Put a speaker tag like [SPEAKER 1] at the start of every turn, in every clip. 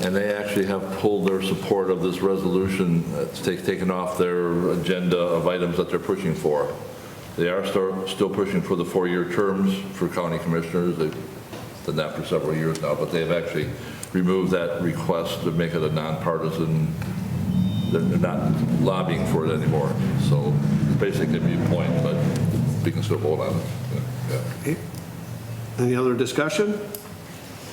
[SPEAKER 1] And they actually have pulled their support of this resolution, it's ta- taken off their agenda of items that they're pushing for. They are star- still pushing for the four-year terms for county commissioners. They've done that for several years now, but they've actually removed that request to make it a nonpartisan, they're they're not lobbying for it anymore. So basically, be a point, but we can still vote on it. Yeah, yeah.
[SPEAKER 2] Any other discussion?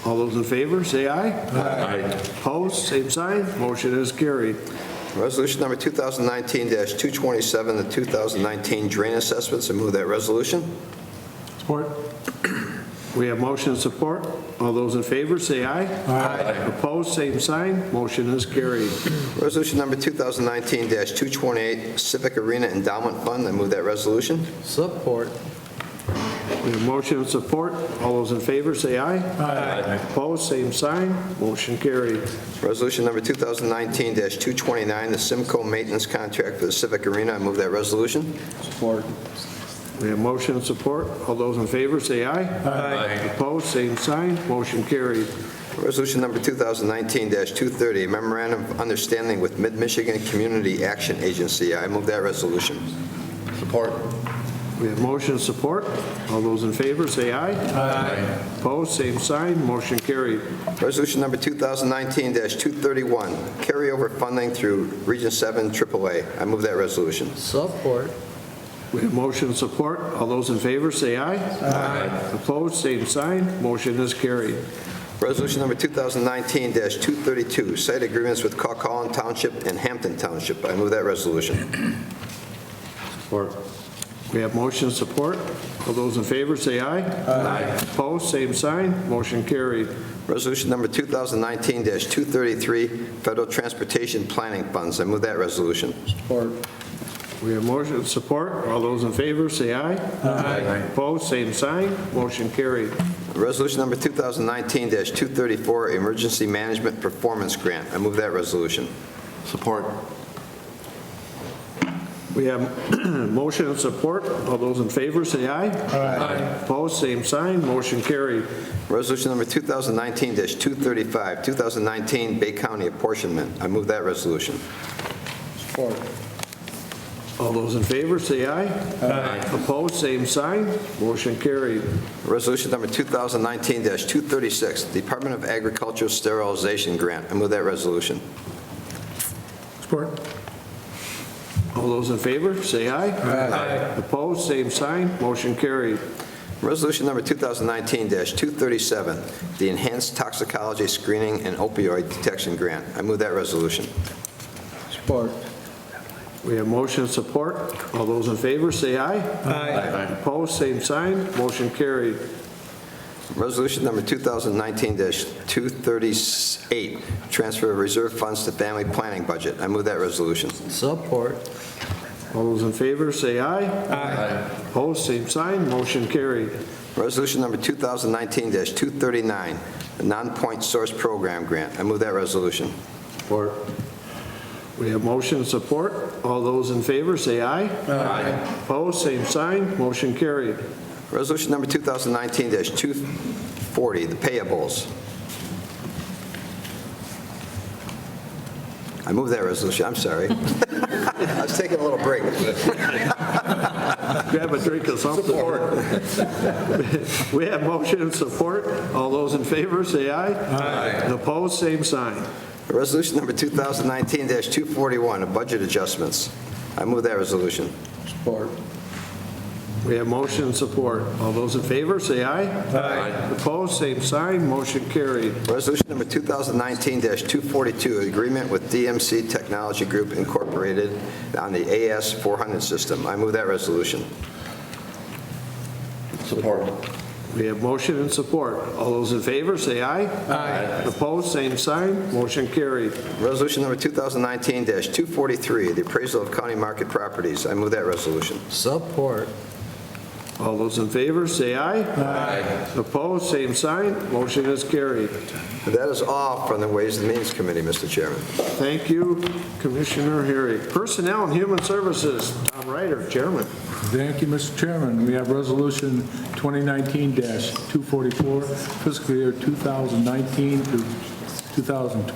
[SPEAKER 2] All those in favor, say aye.
[SPEAKER 1] Aye.
[SPEAKER 2] Opposed, same sign. Motion is carried.
[SPEAKER 3] Resolution number 2019-227, the 2019 drain assessments. I move that resolution.
[SPEAKER 2] Support. We have motion and support. All those in favor, say aye. Aye. Opposed, same sign. Motion is carried.
[SPEAKER 3] Resolution number 2019-228, Civic Arena Endowment Fund. I move that resolution.
[SPEAKER 4] Support.
[SPEAKER 2] We have motion and support. All those in favor, say aye. Aye. Opposed, same sign. Motion carried.
[SPEAKER 3] Resolution number 2019-229, the Simco Maintenance Contract for the Civic Arena. I move that resolution.
[SPEAKER 4] Support.
[SPEAKER 2] We have motion and support. All those in favor, say aye. Aye. Opposed, same sign. Motion carried.
[SPEAKER 3] Resolution number 2019-230, Memorandum of Understanding with Mid-Michigan Community Action Agency. I move that resolution.
[SPEAKER 1] Support.
[SPEAKER 2] We have motion and support. All those in favor, say aye. Aye. Opposed, same sign. Motion carried.
[SPEAKER 3] Resolution number 2019-231, carryover funding through Region 7 AAA. I move that resolution.
[SPEAKER 4] Support.
[SPEAKER 2] We have motion and support. All those in favor, say aye. Aye. Opposed, same sign. Motion is carried.
[SPEAKER 3] Resolution number 2019-232, site agreements with Coquitlam Township and Hampton Township. I move that resolution.
[SPEAKER 4] Support.
[SPEAKER 2] We have motion and support. All those in favor, say aye. Aye. Opposed, same sign. Motion carried.
[SPEAKER 3] Resolution number 2019-233, federal transportation planning funds. I move that resolution.
[SPEAKER 4] Support.
[SPEAKER 2] We have motion and support. All those in favor, say aye. Aye. Opposed, same sign. Motion carried.
[SPEAKER 3] Resolution number 2019-234, emergency management performance grant. I move that resolution.
[SPEAKER 1] Support.
[SPEAKER 2] We have motion and support. All those in favor, say aye. Aye. Opposed, same sign. Motion carried.
[SPEAKER 3] Resolution number 2019-235, 2019 Bay County apportionment. I move that resolution.
[SPEAKER 4] Support.
[SPEAKER 2] All those in favor, say aye. Aye. Opposed, same sign. Motion carried.
[SPEAKER 3] Resolution number 2019-236, Department of Agriculture sterilization grant. I move that resolution.
[SPEAKER 4] Support.
[SPEAKER 2] All those in favor, say aye. Aye. Opposed, same sign. Motion carried.
[SPEAKER 3] Resolution number 2019-237, the Enhanced Toxicology Screening and Opioid Detection Grant. I move that resolution.
[SPEAKER 4] Support.
[SPEAKER 2] We have motion and support. All those in favor, say aye.
[SPEAKER 4] Aye.
[SPEAKER 2] Opposed, same sign. Motion carried.
[SPEAKER 3] Resolution number 2019-238, transfer of reserve funds to family planning budget. I move that resolution.
[SPEAKER 4] Support.
[SPEAKER 2] All those in favor, say aye. Aye. Opposed, same sign. Motion carried.
[SPEAKER 3] Resolution number 2019-239, the Non-Point Source Program Grant. I move that resolution.
[SPEAKER 4] Support.
[SPEAKER 2] We have motion and support. All those in favor, say aye. Aye. Opposed, same sign. Motion carried.
[SPEAKER 3] Resolution number 2019-240, the payables. I move that resolution, I'm sorry. I was taking a little break.
[SPEAKER 2] Grab a drink or something. We have motion and support. All those in favor, say aye. Aye. Opposed, same sign.
[SPEAKER 3] Resolution number 2019-241, the budget adjustments. I move that resolution.
[SPEAKER 4] Support.
[SPEAKER 2] We have motion and support. All those in favor, say aye. Aye. Opposed, same sign. Motion carried.
[SPEAKER 3] Resolution number 2019-242, agreement with DMC Technology Group Incorporated on the AS400 system. I move that resolution.
[SPEAKER 1] Support.
[SPEAKER 2] We have motion and support. All those in favor, say aye. Aye. Opposed, same sign. Motion carried.
[SPEAKER 3] Resolution number 2019-243, the appraisal of county market properties. I move that resolution.
[SPEAKER 4] Support.
[SPEAKER 2] All those in favor, say aye. Aye. Opposed, same sign. Motion is carried.
[SPEAKER 3] That is all from the Ways and Means Committee, Mr. Chairman.
[SPEAKER 2] Thank you, Commissioner Herrick. Personnel and Human Services, Tom Ryder, Chairman.
[SPEAKER 5] Thank you, Mr. Chairman. We have Resolution 2019-244, fiscal year 2019 through 2020.